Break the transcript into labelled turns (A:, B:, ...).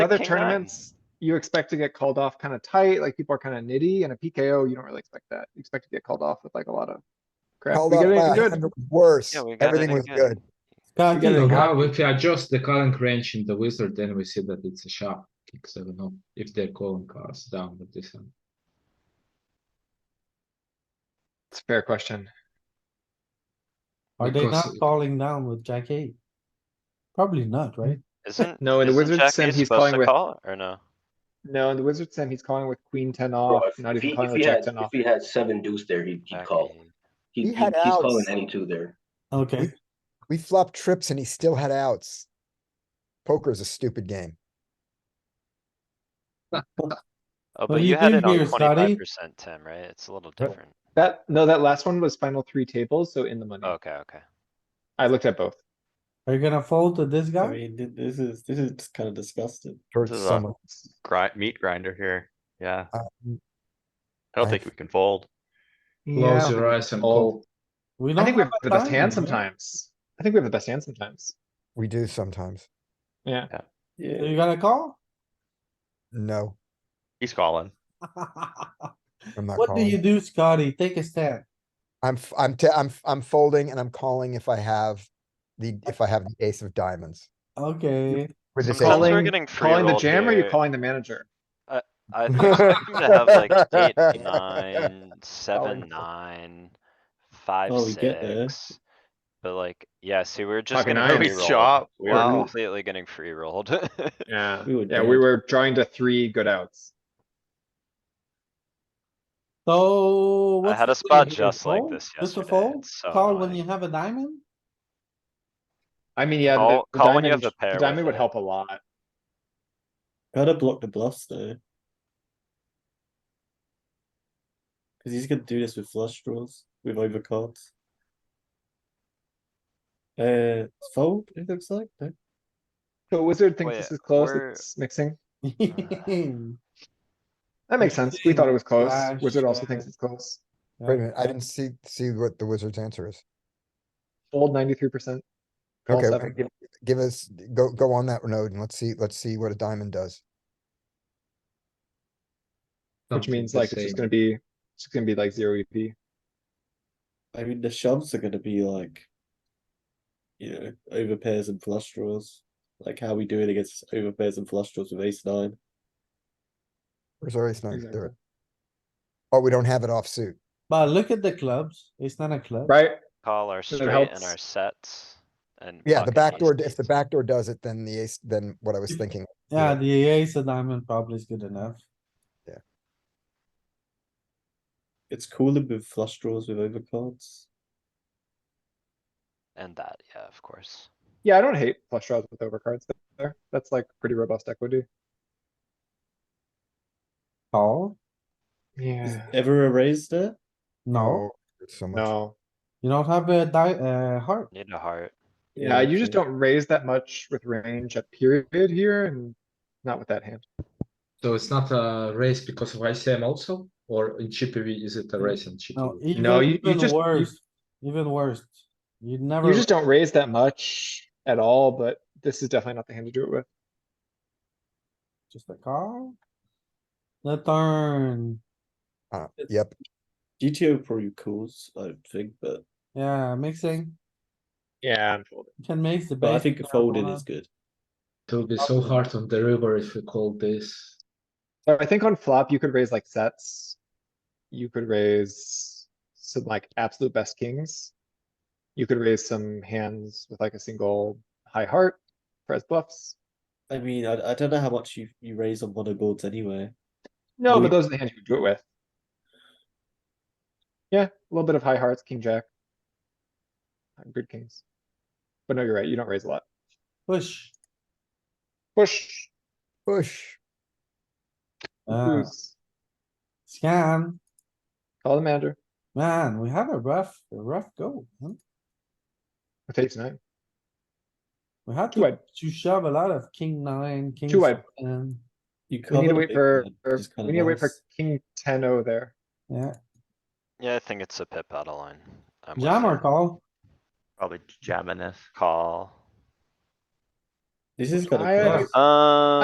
A: Other
B: king nine.
A: tournaments, you expect to get called off kind of tight, like people are kind of nitty, and a PKO, you don't really expect that. You expect to get called off with like a lot of crap.
C: Called
A: We
C: up
A: get
C: by
A: anything
C: 100
A: good?
C: was worse.
B: Yeah, we got
C: Everything was
B: anything
C: good.
D: I
E: I
D: think
E: don't
D: the
E: know
D: guy-
E: how if you adjust the calling range in the wizard, then we see that it's a sharp kick, so I don't know if they're calling cards down with this one.
A: It's a fair question.
D: Are they
E: Because-
D: not falling down with jack eight? Probably not, right?
B: Isn't,
A: No, in the
B: isn't
A: Wizards
B: Jack
A: sim,
B: eight
A: he's
B: supposed
A: calling
B: to
A: with-
B: call or no?
A: No, in the wizard sim, he's calling with queen ten
F: Bro,
A: off,
F: if-
A: not
F: if
A: even
F: he,
A: calling
F: if
A: with
F: he
A: jack
F: had,
A: ten
F: if
A: off.
F: he had seven deuce there, he'd, he'd
B: Jack
F: call.
B: eight.
F: He,
C: He
F: he-
C: had
F: he's
C: outs.
F: calling any two there.
D: Okay,
C: We flopped trips and he still had outs. Poker is a stupid game.
B: Oh,
D: What
B: but
D: do
B: you
D: you
B: had
D: do
B: it on
D: here, Scotty?
B: twenty-five percent, Tim, right? It's a little
A: Yep.
B: different.
A: That, no, that last one was final three tables, so in the money.
B: Okay, okay.
A: I looked at both.
D: are you gonna fold to this
G: I
D: guy?
G: mean, thi- this is, this is kind of disgusting.
C: Hurts
H: This is
C: so
H: a-
C: much.
H: grind, meat grinder here, yeah,
A: Uh,
C: Um,
H: I don't
C: I-
H: think we can fold.
E: Close your eyes and
A: Oh.
E: call.
D: We
A: I
D: don't
A: think we have
D: a
A: the best
D: time,
A: hand
D: right?
A: sometimes. I think we have the best hand sometimes.
C: We do sometimes.
D: So You
G: Yeah,
D: gotta call?
C: No,
H: He's calling.
C: I'm not
D: What do you
C: calling.
D: do, Scotty? Take a stand.
C: I'm, f- I'm, te- I'm, f- I'm folding and I'm calling if I have the, if I have the ace of diamonds.
D: Okay,
C: With
B: Sometimes
C: this ace.
B: we're
A: Calling-
B: getting
A: Calling the
B: free-rolled
A: jam or you
B: here.
A: calling the manager?
B: I expect him to have like eight, nine, seven, nine, five,
G: Oh, we get there.
B: six. But like, yeah, see, we're just
A: Fucking
B: getting
A: Irish
B: free rolled.
H: chop,
B: We're
H: wow.
B: completely getting free rolled.
A: Yeah,
G: We would
A: yeah, we
G: jam.
A: were drawing to three good outs.
D: so.
B: I
D: what's
B: had
D: the
B: a spot
D: play here?
B: just like
D: Fold?
B: this
D: Just a
B: yesterday.
D: fold?
B: It's so
D: Call when
B: annoying.
D: you have a diamond?
A: I mean, yeah, the
B: Call-
A: the
B: call when you
A: diamond,
B: have a pair
A: the
B: with
A: diamond would
B: it.
A: help a lot.
G: gotta block the bluffs though. Cause he's gonna do this with flush draws, with overcards. Uh, fold, it looks like, no?
A: So wizard thinks
B: Wait,
A: this is close,
B: we're-
A: it's mixing.
D: Wait
A: That makes sense. We thought it was close.
D: Flash,
A: Wizard also
D: uh,
A: thinks it's close.
C: Wait a minute, I didn't see, see what the wizard's answer is.
A: Fold ninety-three percent.
C: Okay, give- give us, go, go on that node and let's see, let's see what a diamond does.
A: Which
E: something
A: means
E: the
A: like it's just
E: same.
A: gonna be, it's just gonna be like zero E EP.
G: I mean, the shoves are gonna be like. You know, over pairs and flush draws, like how we do it against over pairs and flush draws with ace nine.
C: Where's our ace nine? There.
A: Exactly.
C: it- Oh, we don't have it offsuit.
D: But look at the clubs. It's not a club.
A: Right?
B: Call our
A: So it
B: straight and
A: helps.
B: our sets and.
C: Yeah, the
B: pocket
C: back
B: ace
C: door, if the
B: eights.
C: back door does it, then the ace, then what I was thinking.
D: Yeah,
C: Yeah.
D: the E ace of diamond probably is good enough.
G: It's cooler with flush draws with overcards.
B: And that, yeah, of course.
A: Yeah, I don't hate flush draws with overcards there. That's like pretty robust equity.
D: Call?
G: Is
A: Yeah.
G: ever a raise there?
C: Oh,
D: No,
C: there's So much.
A: No,
D: you don't have a di- uh, heart.
B: Need a heart.
A: yeah, you just don't raise that much with range at period here and not with that hand.
E: So it's not a race because of ICM also, or in GPV, is it a race in
D: No,
E: GPV?
D: even,
A: No, you- you
D: even
A: just- you-
D: worse, even worse. You never.
A: You just don't raise that much at all, but this is definitely not the hand to do it with.
D: Just a call. The turn.
C: Uh, Yep,
G: GTO probably calls, I think, but
D: Yeah, mixing.
A: Yeah.
D: You Can mix the.
G: but I
D: basic
G: think folding
D: marijuana.
G: is good.
E: It will be so hard on the river if we call this.
A: So I think on flop, you could raise like sets. You could raise some like absolute best kings. You could raise some hands with like a single high heart for as bluffs.
G: I mean, I, I don't know how much you, you raise on mono boards anyway.
A: No,
G: Louis-
A: but those are the hands you could do it with. Yeah, a little bit of high hearts, king jack. Uh, Good kings. But no, you're right. You don't raise a lot.
D: Push.
A: Push.
C: push.
G: Ah.
D: Uh,
A: lose.
D: scan.
A: Call the manager.
D: Man, we have a rough, a rough go. huh?
A: With ace nine.
D: We had
A: Too
D: to,
A: wide.
D: to shove a lot of king nine, king.
A: wide.
D: seven.
A: We
G: You
A: need
G: covered
A: to
G: a
A: wait
G: big
A: for,
G: one,
A: for-
G: which is kinda
A: we need to wait for
G: nice.
A: king ten O there.
D: Yeah,
B: Yeah, I think it's a pip out of line. I'm with
D: jam or
B: you.
D: call?
H: Probably jamming this.
B: Call.
G: This is kind
A: I-
G: of.
D: Yeah.
B: Um.